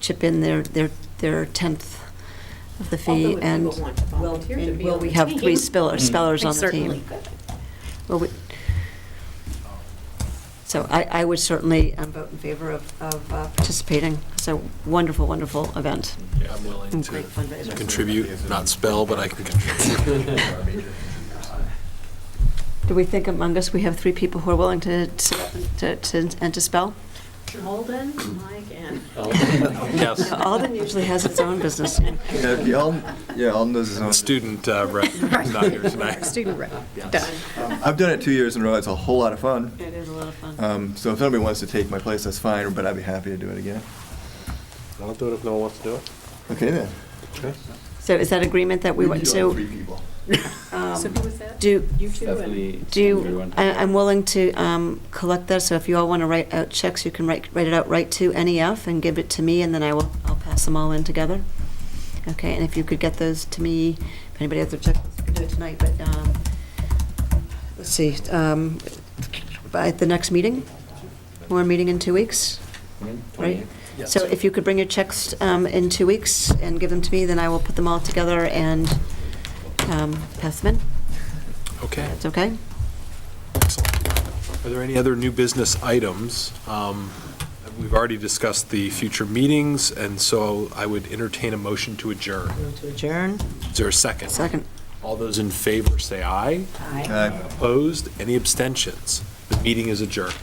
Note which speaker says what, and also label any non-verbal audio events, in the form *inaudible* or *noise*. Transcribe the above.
Speaker 1: chip in their, their, their tenth of the
Speaker 2: Although
Speaker 1: fee,
Speaker 2: if
Speaker 1: and
Speaker 2: people want to volunteer to
Speaker 1: and
Speaker 2: be
Speaker 1: will
Speaker 2: on
Speaker 1: we
Speaker 2: the
Speaker 1: have three
Speaker 2: team,
Speaker 1: speller-
Speaker 3: Mm.
Speaker 1: spellers on the
Speaker 2: certainly
Speaker 1: team?
Speaker 2: could.
Speaker 1: Well, we- So I, I would certainly um, vote in favor of, of uh, participating. It's a wonderful, wonderful event.
Speaker 3: I'm willing to
Speaker 2: Great fundraiser.
Speaker 3: contribute, not spell, but I can contribute.
Speaker 1: *laughs* Do we think among us, we have three people who are willing to, to, to- and to spell?
Speaker 2: Holden, Mike, and
Speaker 1: *laughs*
Speaker 3: Yes,
Speaker 1: Alden usually has its own
Speaker 2: *laughs*
Speaker 1: business.
Speaker 4: Yeah, if you all, yeah, all knows his own.
Speaker 3: student
Speaker 2: *laughs*
Speaker 3: uh, rep, not here tonight.
Speaker 5: Student rep, done.
Speaker 4: Um, I've done it two years in a row. It's a whole lot of fun.
Speaker 1: It is a lot of fun.
Speaker 4: Um, so if nobody wants to take my place, that's fine. But I'd be happy to do it again.
Speaker 6: I'll do it if no one wants to do it.
Speaker 4: Okay then.
Speaker 1: So is that agreement that we want to Um,
Speaker 4: people.
Speaker 5: So who was that?
Speaker 1: do,
Speaker 2: You two and
Speaker 1: do, you- I- I'm willing to um, collect that, so if you all want to write out checks, you can write, write it out right to NEF and give it to me, and then I will, I'll pass them all in together. Okay, and if you could get those to me, if anybody has their check, we can do it tonight, but, um, let's see, um, by the next meeting? We're meeting in two weeks, right? So if you could bring your checks um, in two weeks and give them to me, then I will put them all together and um, pass them in.
Speaker 3: Okay,
Speaker 1: It's okay?
Speaker 3: are there any other new business items? Um, We've already discussed the future meetings, and so I would entertain a motion to adjourn.
Speaker 2: to adjourn.
Speaker 3: Is there a second?
Speaker 1: Second.
Speaker 3: All those in favor, say aye.
Speaker 2: Aye.
Speaker 4: Uh,
Speaker 3: Opposed? Any abstentions? The meeting is adjourned.